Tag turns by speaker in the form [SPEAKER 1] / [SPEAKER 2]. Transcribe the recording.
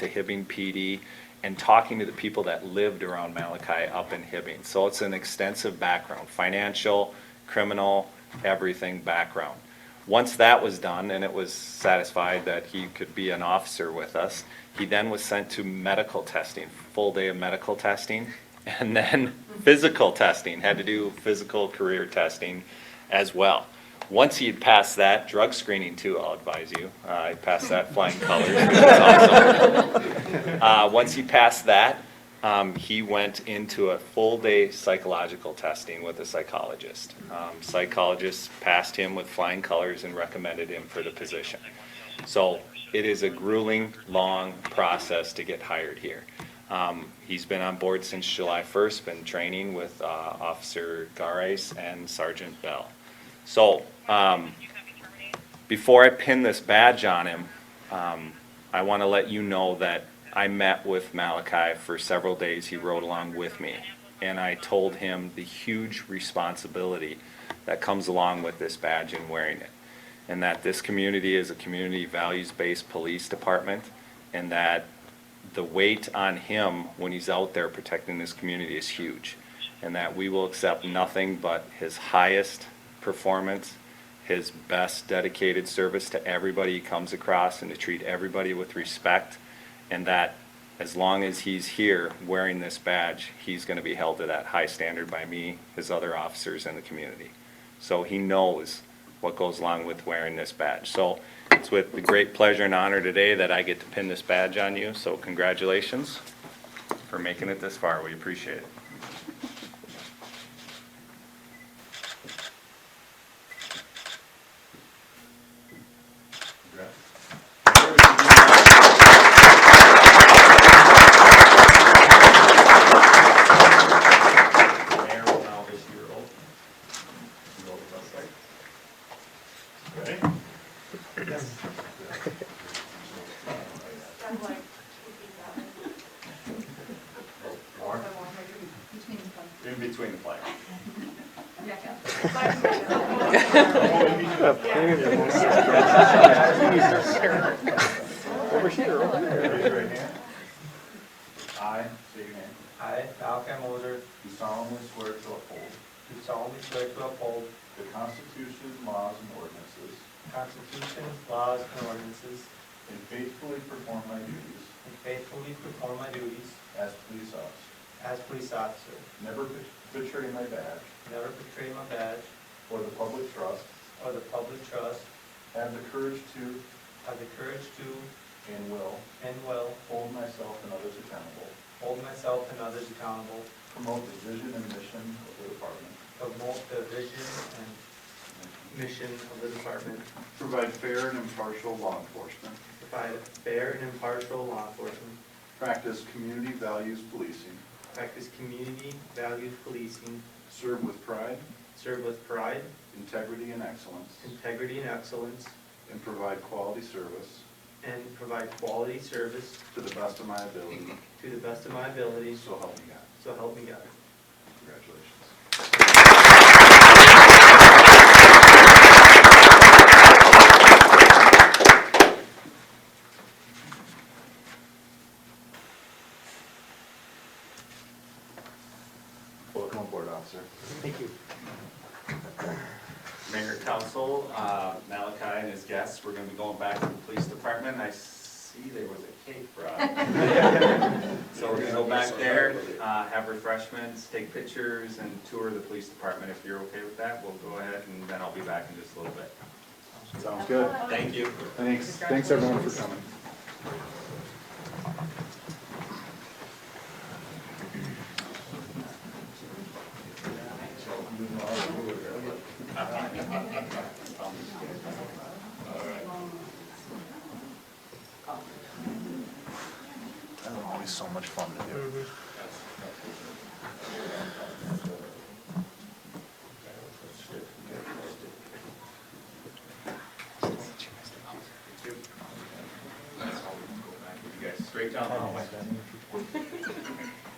[SPEAKER 1] to Hibbing PD and talking to the people that lived around Malachi up in Hibbing. So it's an extensive background, financial, criminal, everything background. Once that was done and it was satisfied that he could be an officer with us, he then was sent to medical testing, full day of medical testing, and then physical testing, had to do physical career testing as well. Once he had passed that, drug screening too, I'll advise you, uh, he passed that flying colors, which is awesome. Uh, once he passed that, um, he went into a full-day psychological testing with a psychologist. Um, Psychologist passed him with flying colors and recommended him for the position. So it is a grueling, long process to get hired here. Um, He's been on board since July 1st, been training with uh, Officer Garais and Sergeant Bell. So um, before I pin this badge on him, um, I want to let you know that I met with Malachi for several days. He rode along with me. And I told him the huge responsibility that comes along with this badge and wearing it. And that this community is a community values-based police department and that the weight on him when he's out there protecting this community is huge. And that we will accept nothing but his highest performance, his best dedicated service to everybody he comes across and to treat everybody with respect. And that as long as he's here wearing this badge, he's gonna be held to that high standard by me, his other officers and the community. So he knows what goes along with wearing this badge. So it's with the great pleasure and honor today that I get to pin this badge on you, so congratulations for making it this far, we appreciate it.
[SPEAKER 2] Mayor will now issue your oath. You go with us, right? Ready? Or in between the flags. Oh, in between. Raise your right hand. I, say your name.
[SPEAKER 3] I, Malcolm Mulder,
[SPEAKER 2] Do solemnly swear to uphold
[SPEAKER 3] do solemnly swear to uphold
[SPEAKER 2] the Constitution, laws, and ordinances,
[SPEAKER 3] the Constitution, laws, and ordinances,
[SPEAKER 2] and faithfully perform my duties
[SPEAKER 3] and faithfully perform my duties
[SPEAKER 2] as police officer,
[SPEAKER 3] as police officer,
[SPEAKER 2] never bet- betray my badge
[SPEAKER 3] never betray my badge
[SPEAKER 2] or the public trust,
[SPEAKER 3] or the public trust,
[SPEAKER 2] have the courage to
[SPEAKER 3] have the courage to
[SPEAKER 2] and will
[SPEAKER 3] and will
[SPEAKER 2] hold myself and others accountable,
[SPEAKER 3] hold myself and others accountable,
[SPEAKER 2] promote the vision and mission of the department,
[SPEAKER 3] promote the vision and mission of the department,
[SPEAKER 2] provide fair and impartial law enforcement,
[SPEAKER 3] provide fair and impartial law enforcement,
[SPEAKER 2] practice community values policing,
[SPEAKER 3] practice community values policing,
[SPEAKER 2] serve with pride,
[SPEAKER 3] serve with pride,
[SPEAKER 2] integrity, and excellence,
[SPEAKER 3] integrity, and excellence,
[SPEAKER 2] and provide quality service
[SPEAKER 3] and provide quality service
[SPEAKER 2] to the best of my ability,
[SPEAKER 3] To the best of my abilities,
[SPEAKER 2] so help me God.
[SPEAKER 3] so help me God.
[SPEAKER 2] Congratulations. Welcome aboard, officer.
[SPEAKER 3] Thank you.
[SPEAKER 1] Mayor, council, uh, Malachi and his guests, we're gonna be going back to the police department. I see there was a cake brought. So we're gonna go back there, uh, have refreshments, take pictures, and tour the police department. If you're okay with that, we'll go ahead, and then I'll be back in just a little bit.
[SPEAKER 2] Sounds good.
[SPEAKER 1] Thank you.
[SPEAKER 2] Thanks, thanks everyone for coming. Always so much fun to do.
[SPEAKER 1] You guys straight down the hallway.